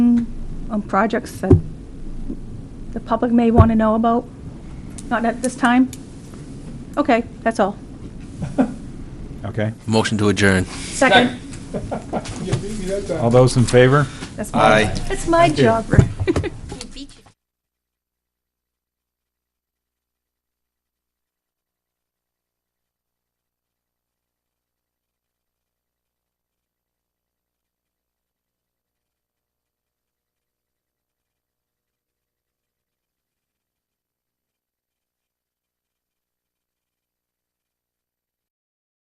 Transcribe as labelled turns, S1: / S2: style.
S1: um, projects that the public may want to know about? Not at this time? Okay, that's all.
S2: Okay.
S3: Motion to adjourn.
S1: Second.
S2: All those in favor?
S1: That's my, that's my job, Rick.